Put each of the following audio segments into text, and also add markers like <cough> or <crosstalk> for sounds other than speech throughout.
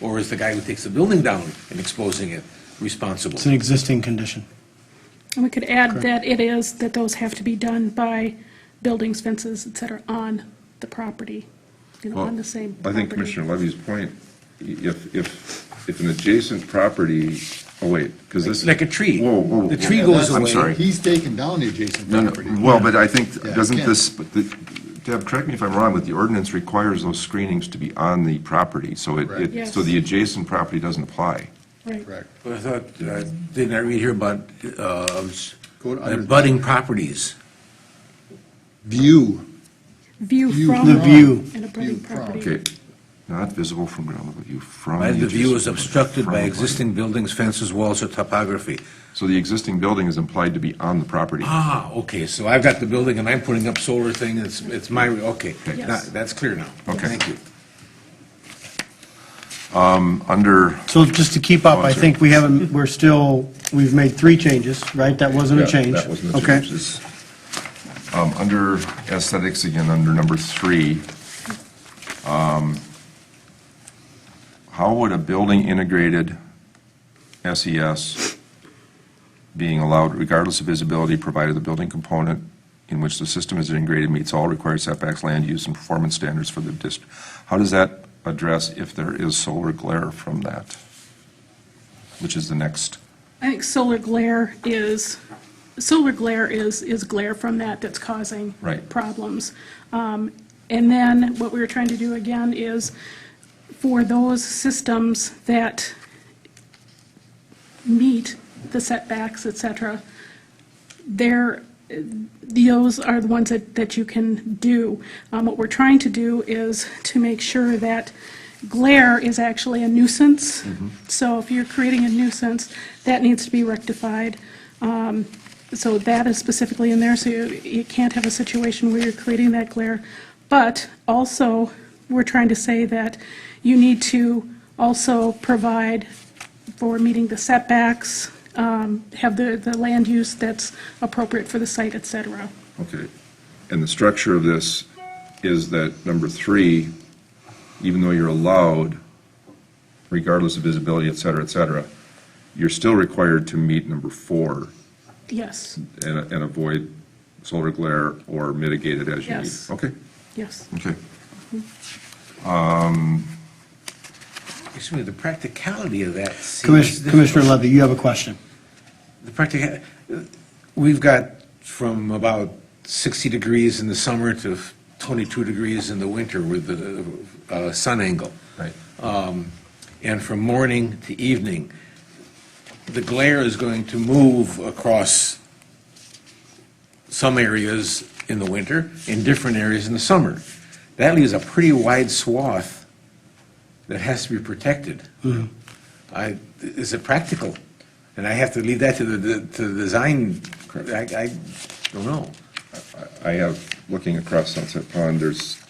Or is the guy who takes the building down and exposing it responsible? It's an existing condition. And we could add that it is, that those have to be done by buildings, fences, et cetera, on the property, you know, Well, on the same I property. think Commissioner Levy's point, i- if, if, if an adjacent property, oh wait, because this. Like a tree. Whoa, whoa. The tree whoa. goes I'm away. sorry. He's taken down the adjacent No, no, property. well, but I think, Yeah, doesn't can't. this, but the- Deb, correct me if I'm wrong, but the ordinance requires those screenings to be on the property, so it- Correct. it, so Yes. the adjacent property doesn't apply. Right. Correct. But I thought, uh, didn't I read here about uh, Go to under- budding properties? View, View View from. The view. And a View budding from. property. Okay, not visible from ground level view, from. When the view is adjacent- obstructed from by the- existing buildings, fences, walls, or topography. So the existing building is implied to be on the property. Ah, okay, so I've got the building and I'm putting up solar thing, it's, it's my, okay. Yes. Now, That's clear now. Okay. Thank you. Um, Under, So just to keep up, I think we haven't, we're still, we've made three changes, right? That wasn't a Yeah, change. That wasn't a Okay. change. This- um, Under aesthetics, again, under number three, um, how would a building integrated SES being allowed regardless of visibility, provided the building component in which the system is integrated meets all required setbacks, land use, and performance standards for the district? How does that address if there is solar glare from that? Which is the next, I think solar glare is, solar glare is, is glare from that that's causing. Right. Problems. Um, And then what we were trying to do again is for those systems that meet the setbacks, et cetera, there, those are the ones that, that you can do. Um, What we're trying to do is to make sure that glare is actually a nuisance. So if you're creating a nuisance, that needs to be rectified. Um, So that is specifically in there, so you, you can't have a situation where you're creating that glare. But also, we're trying to say that you need to also provide for meeting the setbacks, um, have the, the land use that's appropriate for the site, et cetera. Okay. And the structure of this is that number three, even though you're allowed, regardless of visibility, et cetera, et cetera, you're still required to meet number four Yes, and, and avoid solar glare or mitigate it as you need. Yes. Okay, yes. okay. Excuse me, the practicality of that seems Commis- difficult. Commissioner Levy, you have a question. The practica, we've got from about 60 degrees in the summer to 22 degrees in the winter with the uh, sun angle. Right. And from morning to evening, the glare is going to move across some areas in the winter and different areas in the summer. That leaves a pretty wide swath that has to be protected. I, is it practical? And I have to leave that to the, to the design, I, I don't know. I have, looking across Sunset Pond, there's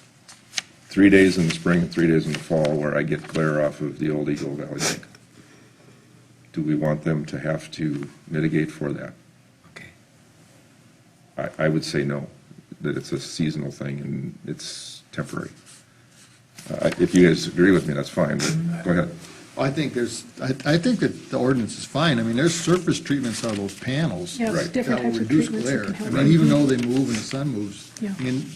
three days in the spring and three days in the fall where I get glare off of the old Eagle Valley Bank. Do we want them to have to mitigate for that? Okay. I, I would say no, that it's a seasonal thing and it's temporary. Uh, If you guys agree with me, that's fine, but go ahead. I think there's, I, I think that the ordinance is fine. I mean, there's surface treatments on those panels. Yes, Right. different that will types of reduce treatments that glare. can help. I mean, even though they move and the sun moves, Yeah. I mean,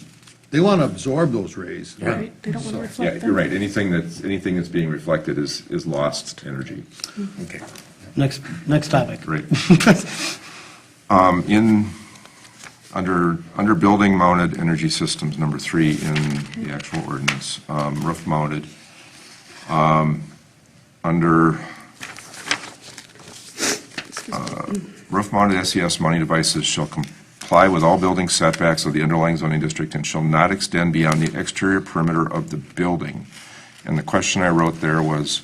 they want to absorb those rays. Yeah. Right, they don't want to reflect Yeah, them. you're right, anything that's, anything that's being reflected is, is lost energy. Okay. Next, next topic. Great. <laughs> Um, <laughs> In, under, under building mounted energy systems, number three in the actual ordinance, um, roof mounted, um, under uh, roof mounted SES mounting devices shall comply with all building setbacks of the underlying zoning district and shall not extend beyond the exterior perimeter of the building. And the question I wrote there was,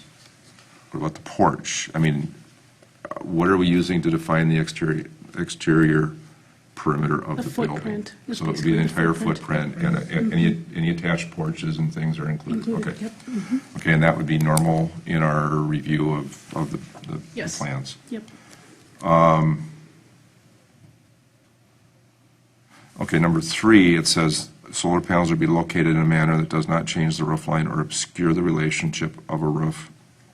what about the porch? I mean, what are we using to define the exterior, exterior perimeter of The the building? footprint is So it would be basically the the entire footprint. footprint, and uh, and any, any attached porches and things are included, Included, okay? yep. Okay, and that would be normal in our review of, of the- the the Yes. plans? Yep, Okay, number three, it says, "Solar panels will be located in a manner that does not change the roof line or obscure the relationship of a roof